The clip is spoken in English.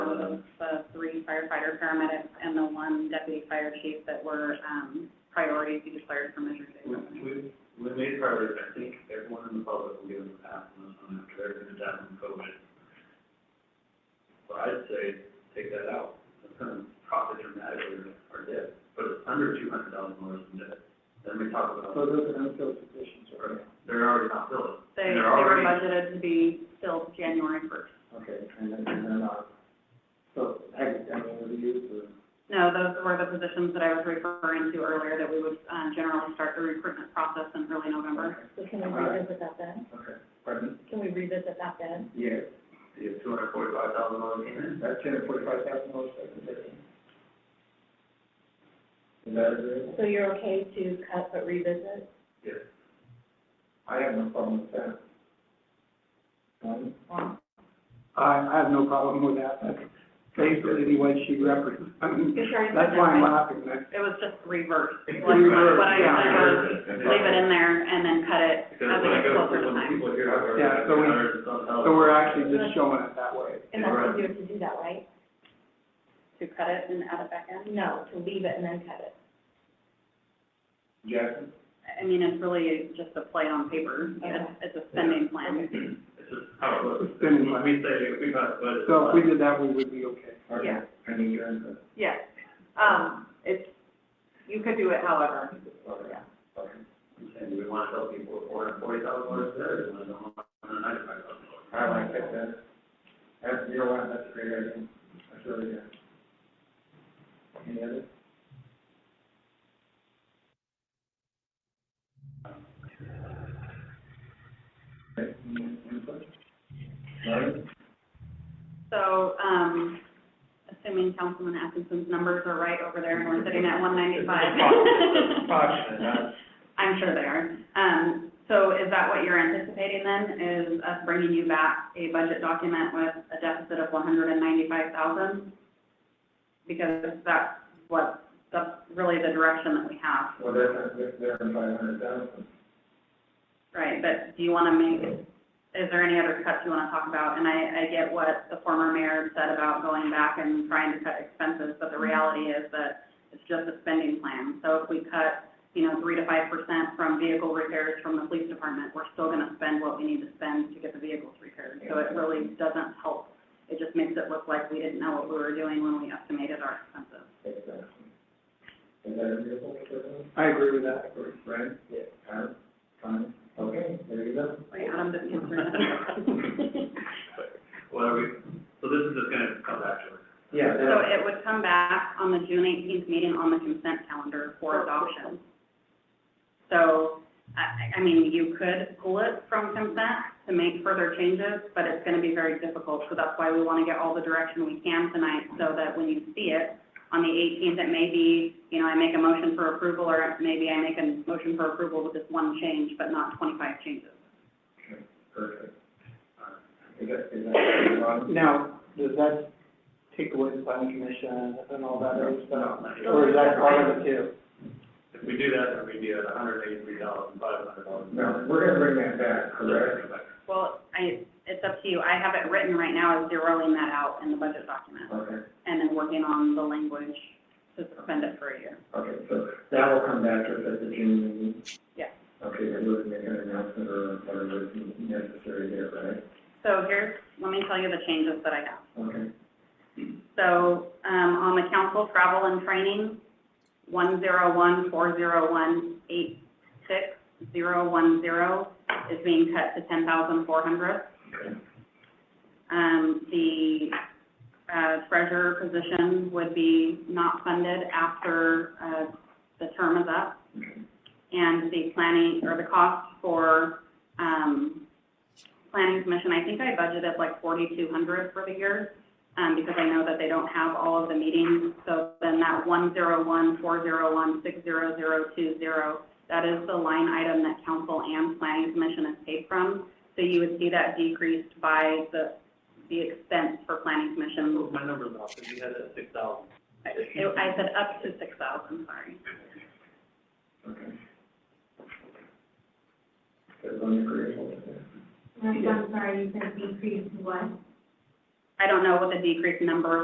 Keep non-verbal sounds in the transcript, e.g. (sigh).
firefighter, paramedic, and the one deputy fire chief that were, um, priorities you declared for Measure J We, revenue. we, we made progress, I think everyone in the public will give us a pass on this one after everything that's happened with COVID. So I'd say take that out, it's gonna profit dramatically our debt, but it's under two hundred thousand dollars in debt. Then we talk about. So those are unfilled positions, right? They're already not filled. They, And they they're were already- budgeted to be filled January first. Okay, and then, and then, uh, so, I, I mean, were you, uh, No, those were the positions that I was referring to earlier, that we would, um, generally start the recruitment process in early November. So can we revisit that then? okay, pardon? Can we revisit that then? Yes, The two hundred forty-five thousand dollars came in, that's two hundred forty-five thousand dollars, Is that agreeable? So you're okay to cut but revisit? yes. I have no problem with that. Um, Um, I, I have no problem with that, that's basically the way she represents, I mean, You sure you that's said why that, I'm right? laughing, that's, It was just reversed. Like, Reversed, what I said was, And leave it in there and then cut it as it Because when I gets go, closer to when time. people here, I've Yeah, so we- so we're actually just showing it that way. And that's what you have to do that, right? To cut it and add it back in? No, to leave it and then cut it. Jackson? I mean, it's really just a play on paper. It's, it's a spending plan. (clears throat) It's just how it looks. Spending When money. we say if we got a budget. So if we did that, we would be okay. Okay. Yeah. I mean, you're in the, Yes, um, it's, you could do it however. okay, okay. And do we want to tell people four hundred forty thousand dollars there, and then one hundred ninety-five thousand I dollars? like that, that's, that's, you know what, that's a great idea, that's really good. Any other? Okay, any input? Larry? So, um, assuming Councilman Atkinson's numbers are right over there and we're sitting at one ninety-five. It's approximate, not- I'm sure they are. Um, so is that what you're anticipating then, is us bringing you back a budget document with a deficit of one hundred and ninety-five thousand? Because that's what, that's really the direction that we have, Well, they're, not- they're, they're in five hundred thousand. right? But do you wanna make, is there any other cuts you wanna talk about? And I, I get what the former mayor said about going back and trying to cut expenses, but the reality is that it's just a spending plan. So if we cut, you know, three to five percent from vehicle repairs from the police department, we're still gonna spend what we need to spend to get the vehicles repaired. So it really doesn't help. It just makes it look like we didn't know what we were doing when we estimated our expenses. Exactly. Is that agreeable with everyone? I agree with that. Brent? Yeah. Karen? Fine, okay, there you go. Wait, Adam didn't answer that. What are we, so this is just gonna come back to us. Yeah, So it would come back on the June eighteenth meeting on the consent calendar for adoption. So, I, I mean, you could pull it from consent to make further changes, but it's gonna be very difficult. So that's why we wanna get all the direction we can tonight, so that when you see it, on the eighteenth, it may be, you know, I make a motion for approval, or maybe I make a motion for approval with just one change, but not twenty-five changes. Perfect. Is that, is that, um, Now, does that take away the planning commission and all that other stuff? No, not yet. Or is that part of it too? If we do that, then we'd be at a hundred eighty-three thousand, five hundred dollars. no, we're gonna bring that back, correct? Well, I, it's up to you. I have it written right now as zeroing that out in the budget document. Okay, and then working on the language to suspend it for a year. okay, so that will come back to us at the June meeting? Yeah. Okay, and we'll make an announcement or whatever is necessary there, right? So here's, let me tell you the changes that I have. Okay, So, um, on the council travel and training, one zero one four zero one eight six zero one zero is being cut to ten thousand four hundred. Um, the, uh, treasurer position would be not funded after, uh, the term is up. And the planning, or the cost for, um, planning commission, I think I budgeted like forty-two hundred for the year um, because I know that they don't have all of the meetings. So then that one zero one four zero one six zero zero two zero, that is the line item that council and planning commission is paid from. So you would see that decreased by the, the expense for planning commission. My number's off, if you had that six thousand. I I said up to six thousand, sorry. okay. Is everyone agreeable with that? I'm sorry, you said decrease what? I don't know what the decreased number